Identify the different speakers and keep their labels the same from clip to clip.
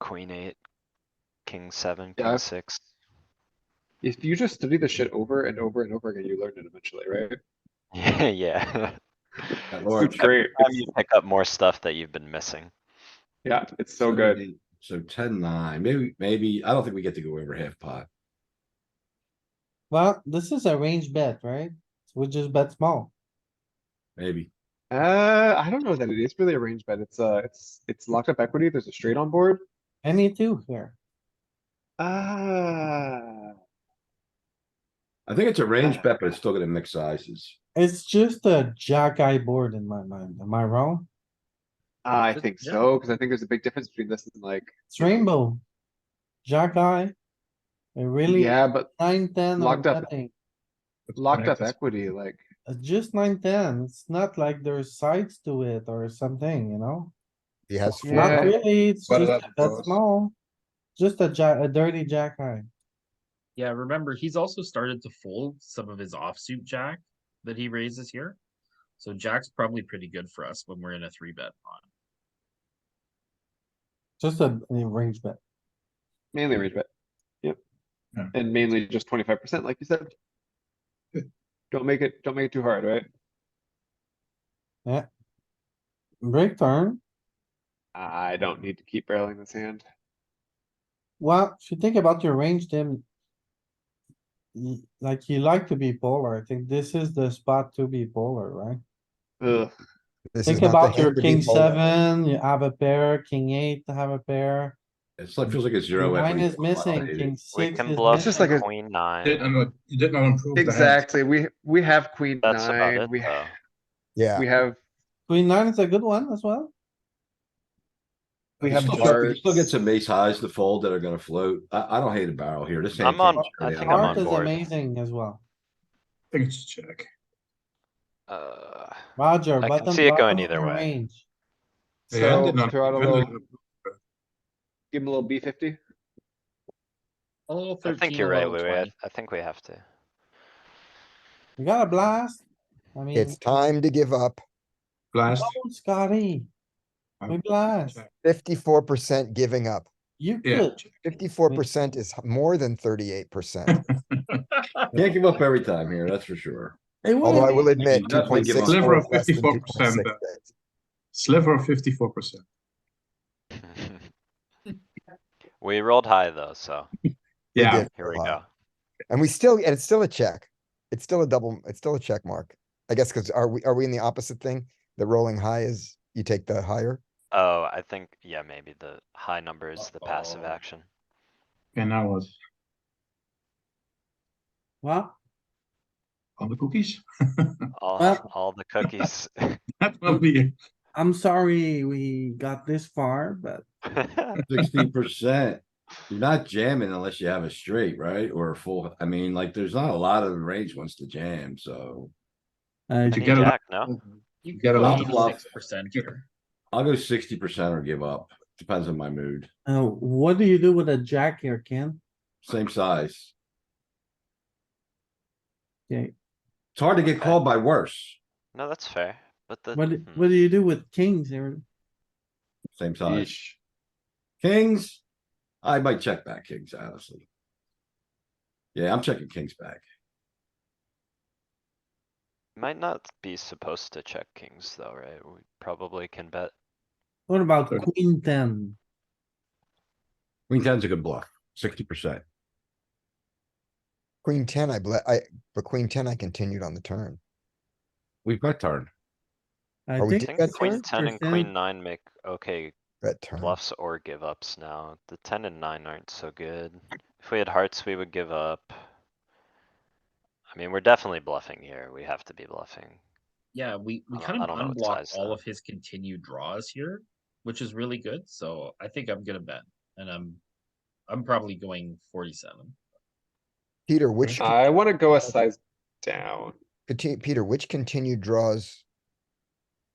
Speaker 1: queen eight, king seven,
Speaker 2: Yeah.
Speaker 1: king six.
Speaker 2: If you just study the shit over and over and over again, you learn it eventually, right?
Speaker 1: Yeah, yeah.
Speaker 3: Yeah, Lord,
Speaker 2: Oh, It's great.
Speaker 1: Time you pick up more stuff that you've been missing.
Speaker 2: Yeah, it's so good.
Speaker 3: eight. So ten, nine, maybe, maybe, I don't think we get to go over half pot.
Speaker 4: Well, this is a range bet, right? We just bet small.
Speaker 3: Maybe.
Speaker 2: Uh, I don't know that it is really a range bet. It's uh, it's it's locked up equity. There's a straight on board.
Speaker 4: Any two here.
Speaker 2: Ah,
Speaker 3: I think it's a
Speaker 4: Uh,
Speaker 3: range bet, but it's still gonna mix sizes.
Speaker 4: It's just a jack eye board in my mind. Am I wrong?
Speaker 2: I think so because I think there's a big difference between this and like
Speaker 4: It's rainbow. Jack eye. It really
Speaker 2: yeah, but
Speaker 4: nine, ten or
Speaker 2: Locked up.
Speaker 4: nothing.
Speaker 2: locked up equity like
Speaker 4: It's just nine, ten. It's not like there's sides to it or something, you know?
Speaker 5: He has
Speaker 4: It's Not
Speaker 2: Yeah.
Speaker 5: four,
Speaker 4: really. It's
Speaker 6: But
Speaker 4: just
Speaker 6: that
Speaker 4: that
Speaker 6: draws.
Speaker 4: small. Just a jack, a dirty jack eye.
Speaker 7: Yeah, remember, he's also started to fold some of his offsuit jack that he raises here. So jack's probably pretty good for us when we're in a three bet pot.
Speaker 4: Just a a range bet.
Speaker 2: mainly range bet. Yep,
Speaker 6: Yeah.
Speaker 2: and mainly just twenty five percent, like you said. Don't make it. Don't make it too hard, right?
Speaker 4: Break turn.
Speaker 2: I don't need to keep barreling this hand.
Speaker 4: Well, if you think about your range, Tim. y- Like you like to be polar. I think this is the spot to be polar, right?
Speaker 2: Ugh.
Speaker 5: this is
Speaker 4: Think
Speaker 5: not the
Speaker 4: about your
Speaker 5: hand to be
Speaker 4: king
Speaker 5: folded.
Speaker 4: seven, you have a pair, king eight, to have a pair.
Speaker 3: It's like, feels like a
Speaker 4: King
Speaker 3: zero.
Speaker 4: Nine
Speaker 3: equity
Speaker 4: is
Speaker 3: for a lot of
Speaker 4: missing,
Speaker 3: it.
Speaker 4: king
Speaker 1: We
Speaker 4: six
Speaker 1: can
Speaker 4: is
Speaker 1: bluff
Speaker 2: just
Speaker 4: missing.
Speaker 2: like a-
Speaker 1: queen nine.
Speaker 6: Didn't, you didn't improve. the hand.
Speaker 2: Exactly. We we have queen
Speaker 1: That's about
Speaker 2: nine.
Speaker 1: it
Speaker 2: We
Speaker 1: though.
Speaker 5: Yeah,
Speaker 2: we have
Speaker 4: Queen nine is a good one as well.
Speaker 2: we
Speaker 3: You
Speaker 2: have
Speaker 3: still- you
Speaker 2: hearts.
Speaker 3: Still get some ace highs to fold that are gonna float. I, I don't hate a barrel here. This. hand
Speaker 1: I'm on-
Speaker 3: can't
Speaker 1: I
Speaker 3: turn
Speaker 1: think
Speaker 3: out.
Speaker 1: I'm
Speaker 4: Heart
Speaker 1: on
Speaker 4: is
Speaker 1: board.
Speaker 4: amazing as well.
Speaker 6: I think it's check.
Speaker 1: Uh,
Speaker 4: Roger,
Speaker 1: I can
Speaker 4: button,
Speaker 1: see it going
Speaker 4: bottom
Speaker 1: either
Speaker 4: of
Speaker 1: way.
Speaker 4: range.
Speaker 6: The hand
Speaker 2: So
Speaker 6: did not-
Speaker 2: throw out a
Speaker 6: the hand
Speaker 2: little,
Speaker 6: did not-
Speaker 2: give him a little B fifty.
Speaker 7: A little
Speaker 1: I
Speaker 7: Oh, thirteen.
Speaker 1: think you're right, Louis. I- I think we have to.
Speaker 4: You got a blast. I mean,
Speaker 5: it's time to give up.
Speaker 6: Blast.
Speaker 4: oh, Scotty,
Speaker 6: I
Speaker 4: we
Speaker 6: would
Speaker 4: blast.
Speaker 6: check.
Speaker 5: Fifty-four percent giving up.
Speaker 4: You
Speaker 6: Yeah,
Speaker 4: could,
Speaker 6: check.
Speaker 5: Fifty-four percent is h- more than thirty-eight percent.
Speaker 3: Can't give up every time here, that's for sure.
Speaker 4: it
Speaker 5: Although I
Speaker 4: would,
Speaker 5: will admit,
Speaker 3: You
Speaker 5: two
Speaker 3: definitely
Speaker 5: point
Speaker 3: give up.
Speaker 5: six.
Speaker 6: Sliver of 54%, but- Sliver of fifty-four percent.
Speaker 1: We rolled high though, so
Speaker 6: Yeah,
Speaker 1: here we go.
Speaker 5: And we still, and it's still a check. It's still a double, it's still a check mark. I guess, cause are we, are we in the opposite thing? The rolling high is, you take the higher?
Speaker 1: Oh, I think, yeah, maybe the high number is the passive
Speaker 3: Uh-oh.
Speaker 1: action.
Speaker 6: and now what?
Speaker 4: well,
Speaker 6: All the cookies?
Speaker 1: All,
Speaker 4: Well-
Speaker 1: all the cookies.
Speaker 6: That will be,
Speaker 4: I'm sorry we got this far, but
Speaker 3: Sixteen percent. You're not jamming unless you have a straight, right? Or a full, I mean, like, there's not a lot of range ones to jam, so.
Speaker 4: uh,
Speaker 1: Any
Speaker 6: get a-
Speaker 1: jack, no?
Speaker 7: You
Speaker 6: Get
Speaker 7: get
Speaker 6: a lot
Speaker 3: of
Speaker 7: a
Speaker 3: bluff.
Speaker 7: six percent here.
Speaker 3: I'll go sixty percent or give up. Depends on my mood.
Speaker 4: uh, what do you do with a jack here, Ken?
Speaker 3: Same size.
Speaker 4: Okay.
Speaker 3: It's hard to get called by worse.
Speaker 1: No, that's fair, but the.
Speaker 4: What, do-
Speaker 1: hmm.
Speaker 4: what do you do with kings here?
Speaker 3: Same size. Kings. I might check back kings, honestly. Yeah, I'm checking kings back.
Speaker 1: Might not be supposed to check kings though, right? We probably can bet.
Speaker 4: What about
Speaker 6: Good.
Speaker 4: queen ten?
Speaker 3: Queen ten's a good bluff, sixty percent.
Speaker 5: Queen ten, I ble, I, but queen ten, I continued on the turn.
Speaker 3: We bet turn.
Speaker 4: I
Speaker 5: Are we
Speaker 1: I
Speaker 5: Did
Speaker 4: think
Speaker 1: think
Speaker 5: that
Speaker 1: queen
Speaker 5: turn?
Speaker 1: ten and queen nine make okay
Speaker 5: Bet turn.
Speaker 1: bluffs or give ups now. The ten and nine aren't so good. If we had hearts, we would give up. I mean, we're definitely bluffing here. We have to be bluffing.
Speaker 7: Yeah, we, we
Speaker 1: I don't-
Speaker 7: kind
Speaker 1: I
Speaker 7: of
Speaker 1: don't know what
Speaker 7: unblock
Speaker 1: size
Speaker 7: all
Speaker 1: that-
Speaker 7: of his continued draws here, which is really good, so I think I'm gonna bet, and I'm, I'm probably going forty-seven.
Speaker 5: Peter, which, con-
Speaker 2: I want to go a size down.
Speaker 5: conti- Peter, which continued draws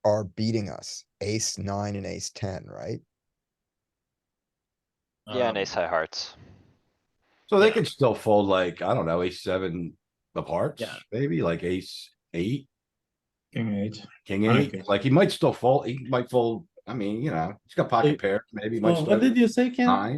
Speaker 5: are beating us? Ace nine and ace ten, right?
Speaker 1: Yeah, and
Speaker 7: Um,
Speaker 1: ace high hearts.
Speaker 3: So they
Speaker 7: Yeah.
Speaker 3: could still fold like, I don't know, ace seven of hearts,
Speaker 7: Yeah.
Speaker 3: maybe like ace eight,
Speaker 6: king eight.
Speaker 3: king
Speaker 6: I don't think-
Speaker 3: eight. Like he might still fold, he might fold
Speaker 4: I mean, you know, he's got pocket pairs, maybe
Speaker 3: So
Speaker 4: much.
Speaker 3: What did you say, Ken?
Speaker 4: Nine.